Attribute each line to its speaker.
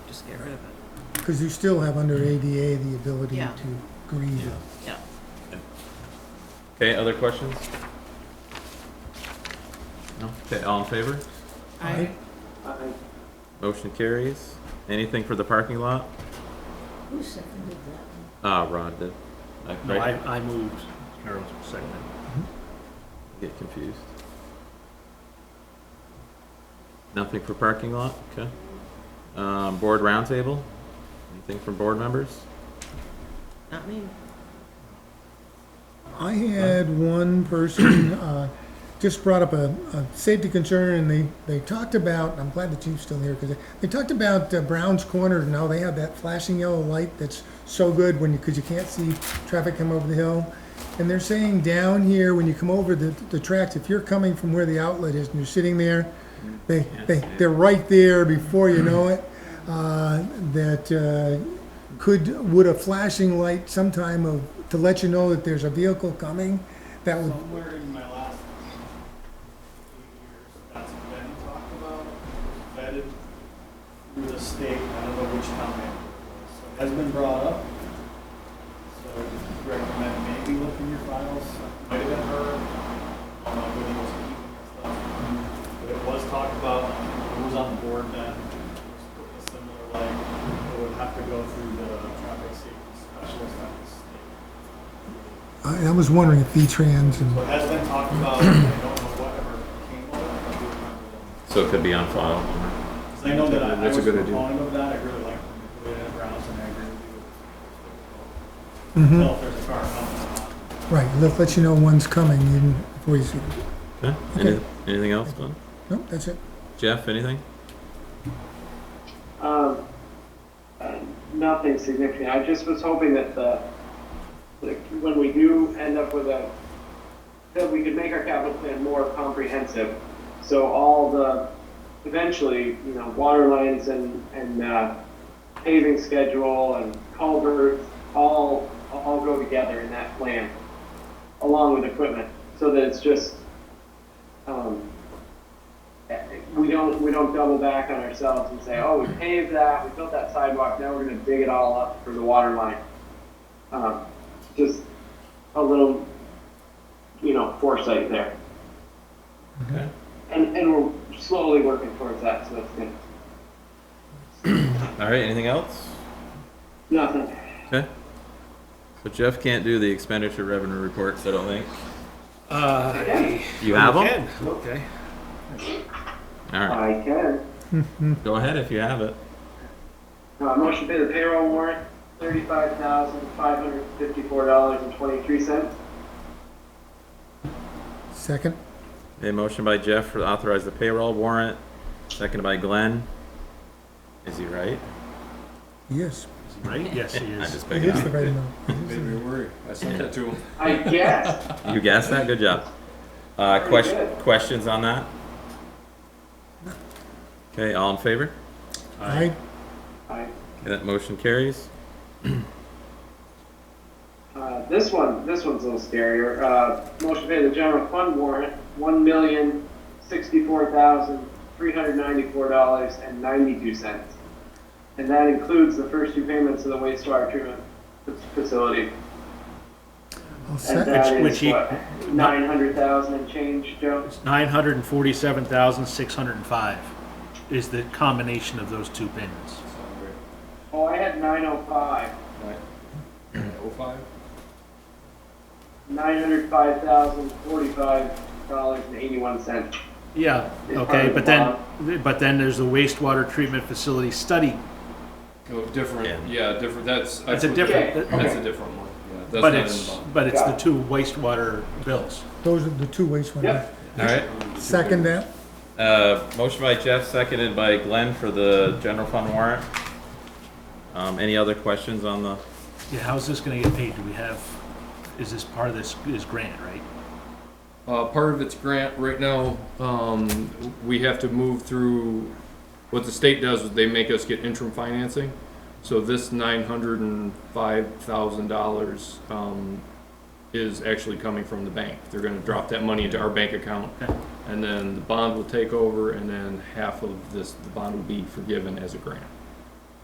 Speaker 1: just get rid of it.
Speaker 2: Because you still have under ADA the ability
Speaker 1: Yeah.
Speaker 2: to grieve it.
Speaker 3: Yeah.
Speaker 1: Yeah.
Speaker 3: Okay, other questions? No? Okay, all in favor?
Speaker 2: Aye.
Speaker 3: Motion carries. Anything for the parking lot?
Speaker 4: Who seconded that?
Speaker 3: Ah, Ron did. I,
Speaker 5: No,
Speaker 3: right,
Speaker 5: I, I moved, Carol's seconded.
Speaker 3: get confused. Nothing for parking lot? Okay. Um, board roundtable? Anything from board members?
Speaker 1: Not me.
Speaker 2: I had one person, uh, just brought up a, a safety concern and they, they talked about, I'm glad the chief's still here, because they, they talked about uh, Brown's Corner and how they have that flashing yellow light that's so good when you, because you can't see traffic come over the hill. And they're saying down here, when you come over the, the tracks, if you're coming from where the outlet is and you're sitting there, they, they, they're right there before you know it, uh, that, uh, could, would a flashing light sometime of, to let you know that there's a vehicle coming, that would
Speaker 6: Somewhere in my last eight years, that's been talked about, vetted through the state, I don't know which town it was. So it Has been brought up, so I recommend maybe look in your files, might have been her, I don't know whether it was keeping that stuff. But it was talked about, who was on the board then, was putting a similar like, it would have to go through the traffic safety specialist at the state.
Speaker 2: I, I was wondering if V-Trans
Speaker 6: So it
Speaker 2: and,
Speaker 6: has been talked about, I don't know whatever came of it, I do remember them.
Speaker 3: So it could be on file.
Speaker 6: 'Cause I know that I I was
Speaker 7: That's a
Speaker 6: a
Speaker 7: good idea.
Speaker 6: proponent of that, I really like the way that Brown's and I agree with you.
Speaker 2: Mhm.
Speaker 6: Tell if there's a car coming.
Speaker 2: right, let, let you know one's coming, even before you see,
Speaker 3: Okay, any, anything else, Glenn?
Speaker 2: nope, that's it.
Speaker 3: Jeff, anything?
Speaker 8: Um, uh, nothing significant. I just was hoping that the, like, when we do end up with a, that we could make our capital plan more comprehensive. So all the, eventually, you know, water lines and, and, uh, paving schedule and culverts, all, all go together in that plan, along with equipment, so that it's just, um, we don't, we don't double back on ourselves and say, oh, we paved that, we built that sidewalk, now we're gonna dig it all up for the water line. Um, just a little, you know, foresight there.
Speaker 3: Okay.
Speaker 8: And, and we're slowly working towards that, so that's good.
Speaker 3: All right, anything else?
Speaker 8: Nothing.
Speaker 3: Okay. So Jeff can't do the expenditure revenue reports, I don't think.
Speaker 5: Uh,
Speaker 3: You have them?
Speaker 5: Ken, Okay.
Speaker 3: All right,
Speaker 8: I can.
Speaker 3: go ahead if you have it.
Speaker 8: Uh, motion to pay the payroll warrant, thirty-five thousand, five hundred fifty-four dollars and twenty-three cents.
Speaker 2: Second,
Speaker 3: A motion by Jeff to authorize the payroll warrant, seconded by Glenn. Is he right?
Speaker 2: yes,
Speaker 5: Right, yes, he
Speaker 3: I
Speaker 5: is.
Speaker 3: just
Speaker 2: it
Speaker 3: picked
Speaker 2: is the
Speaker 3: it
Speaker 2: right amount.
Speaker 7: Made me worry. I sent that to him.
Speaker 8: I guess.
Speaker 3: up. You guessed that, good job. Uh,
Speaker 8: Very
Speaker 3: question,
Speaker 8: good.
Speaker 3: questions on that? Okay, all in favor?
Speaker 2: I,
Speaker 8: I
Speaker 3: Okay, That motion carries.
Speaker 8: Uh, this one, this one's a little scarier. Uh, motion to pay the general fund warrant, one million sixty-four thousand three hundred ninety-four dollars and ninety-two cents, and that includes the first two payments of the wastewater treatment f- facility.
Speaker 2: I'll
Speaker 8: And
Speaker 2: sec,
Speaker 8: that
Speaker 5: Which-
Speaker 8: is
Speaker 5: which he-
Speaker 8: what nine hundred thousand and change, Joe.
Speaker 5: It's nine hundred and forty-seven thousand, six hundred and five is the combination of those two payments.
Speaker 8: Oh, I had nine oh five.
Speaker 7: Oh five?
Speaker 8: Nine hundred five thousand forty-five dollars and eighty-one cents.
Speaker 5: Yeah,
Speaker 8: It's part
Speaker 5: okay,
Speaker 8: of
Speaker 5: but
Speaker 8: the
Speaker 5: then, but then there's the wastewater treatment facility study,
Speaker 7: Oh, different, yeah, different, that's. I
Speaker 5: That's a
Speaker 7: put-
Speaker 5: different-
Speaker 7: That's a different one, yeah. That's
Speaker 5: but
Speaker 7: not in the
Speaker 5: it's,
Speaker 7: bottom.
Speaker 5: but it's the
Speaker 8: Yeah.
Speaker 5: two wastewater bills.
Speaker 2: those are the two ways one.
Speaker 8: Yep.
Speaker 3: All right.
Speaker 2: Second that,
Speaker 3: Uh, motion by Jeff, seconded by Glenn for the general fund warrant. Um, any other questions on the,
Speaker 5: Yeah, how's this gonna get paid? Do we have, is this part of this, is grant, right?
Speaker 7: Uh, part of its grant right now, um, we have to move through, what the state does is they make us get interim financing. So this nine hundred and five thousand dollars, um, is actually coming from the bank. They're gonna drop that money into our bank account.
Speaker 5: Okay.
Speaker 7: And then the bond will take over and then half of this, the bond will be forgiven as a grant.